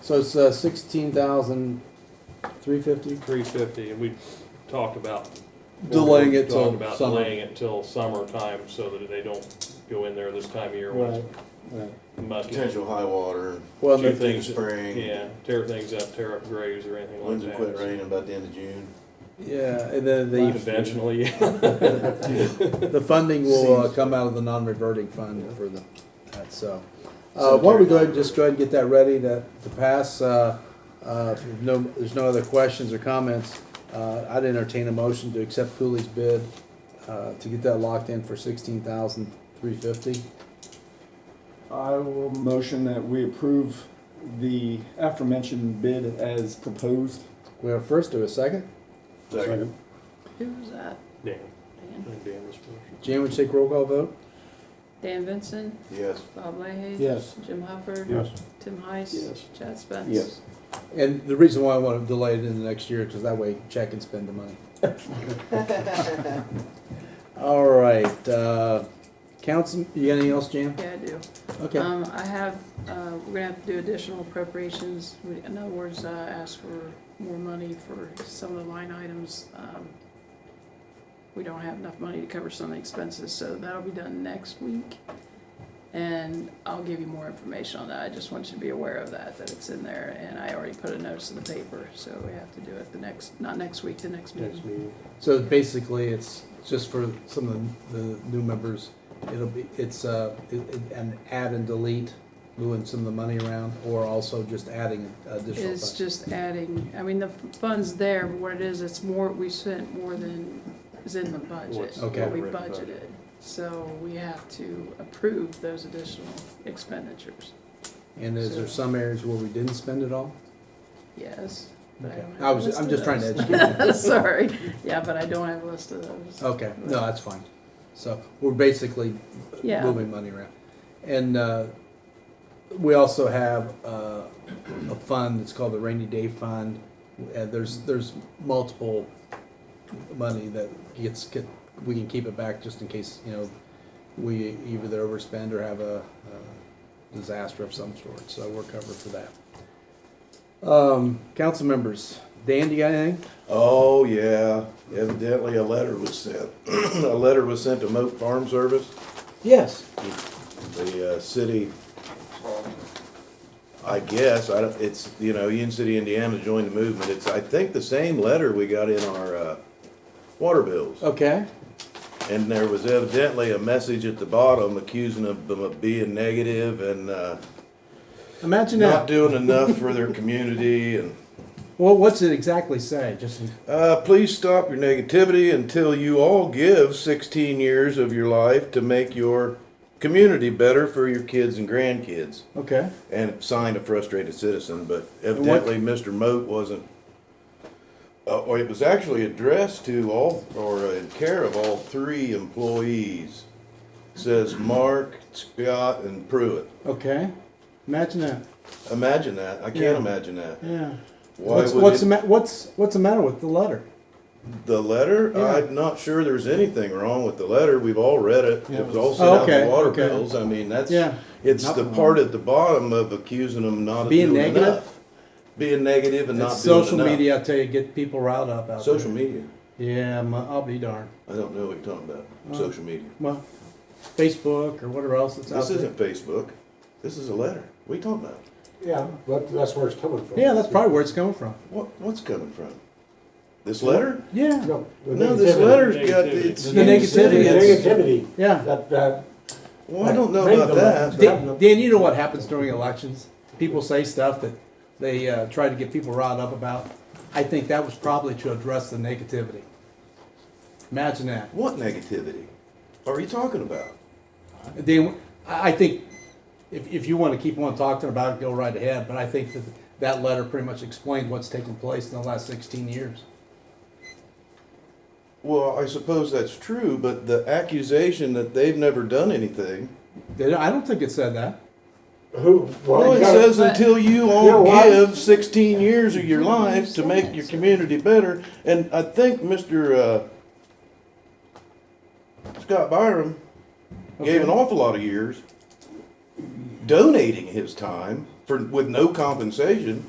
So it's uh, sixteen thousand three fifty. three fifty, and we talked about. Delaying it till Talked about summer. delaying it till summertime, so that they don't go in there this time of year when Right. it's muggy. Potential high water, Well, Two and the- things, spring. yeah, tear things up, tear up graves or anything like winds will that. quit raining about the end of June. yeah, and then the Conventionally, yeah. the funding will uh, Seems- come out of the non-reverting fund for the that. So, uh, Cemetery why don't we go ahead and just go ahead and get that ready to to pass? Uh, uh, if there's no, there's no other questions or comments. Uh, I'd entertain a motion to accept Cooley's bid uh, to get that locked in for sixteen thousand three fifty. I will motion that we approve the aforementioned bid as proposed. We have first or a second? Second. Who was that? Dan, I Dan, think Dan was first. Jan, would you take roll call vote? Dan Vincent, Yes. Bob Leahy. Yes. Jim Hufford. Yes. Tim Heiss. Yes. Chad Spence. Yes. And the reason why I want to delay it in the next year, because that way Chad can spend the money. All right, uh, council, you got anything else, Jan? Yeah, I do. Okay, Um, I have, uh, we're gonna have to do additional appropriations, We- in other words, uh, ask for more money for some of the line items. Um, We don't have enough money to cover some of the expenses, so that'll be done next week. And I'll give you more information on that, I just want you to be aware of that, that it's in there, and I already put a notice in the paper, so we have to do it the next, not next week, the next Next meeting. meeting. so basically, it's just for some of the new members, it'll be, it's, uh, it- it- an add and delete, moving some of the money around, or also just adding additional. It's funds. just adding, I mean, the fund's there, but what it is, it's more, we spent more than is in the budget, What's Okay. what we written budget. budgeted. So we have to approve those additional expenditures, And is there some areas where we didn't spend it all? yes. but Okay. don't have I a was, list I'm of just trying to those. educate. Uh, Sorry, yeah, but I don't have a list of those. Okay, no, that's fine. So we're basically Yeah. moving money around. And uh, we also have uh, a fund that's called the rainy day fund. And there's, there's multiple money that gets, get- we can keep it back just in case, you know, we either overspend or have a uh, disaster of some sort, so we're covered for that. Um, Council members, Dan, do you got anything? Oh, yeah. Evidently, a letter was sent. A letter was sent to Moat Farm Service. Yes. the uh, city, I guess, I don't, it's, you know, Union City, Indiana joined the movement. It's, I think, the same letter we got in our uh, water bills. Okay. And there was evidently a message at the bottom accusing of them of being negative and uh, Imagine that. not doing enough for their community and, Well, what's it exactly say? Just uh, please stop your negativity until you all give sixteen years of your life to make your community better for your kids and grandkids. okay. and signed a frustrated citizen, but what- evidently Mr. Moat wasn't. Uh, or it was actually addressed to all, or uh, in care of all three employees. Says Mark, Scott, and Pruitt. Okay. Imagine that. Imagine that. I can't Yeah. imagine that. Yeah. Why what's would what's it- the ma- what's what's the matter with the letter? the letter? Yeah. I'm not sure there's anything wrong with the letter. We've all read it. Yeah, it was it all was- sent out in Oh, Okay, the water okay. bills. I mean, that's Yeah. it's Nothing the wrong. part at the bottom of accusing them not Being doing negative? enough. being negative and not It's doing social enough. media, I tell you, get people riled up out Social there. media. Yeah, my, I'll be darned. I don't know what you're talking about. Oh. Social media. Well, Facebook or whatever else that's This out isn't Facebook. This is a letter. What are you talking about? Yeah, but that's where it's coming from. there. Yeah, that's probably where it's coming from. What what's coming from? This letter? Yeah. No, the No, this negativity. letter's got it's The negativity. The It's- negativity Yeah. that, that. Well, I don't know Made about the that. letter. Dan, but- Dan, you know what happens during elections? People say stuff that they uh, try to get people riled up about. I think that was probably to address the negativity. Imagine that. What negativity are you talking about? They, I I think if, if you want to keep on talking about it, go right ahead, but I think that that letter pretty much explained what's taken place in the last sixteen years. Well, I suppose that's true, but the accusation that they've never done anything. They don't- I don't think it said that. Who? Well, you it gotta- says until you Yeah, all why- give 16 years of your life to make your community better. And I think Mr. Uh, Scott Byram gave an awful lot of years donating his time for, with no compensation,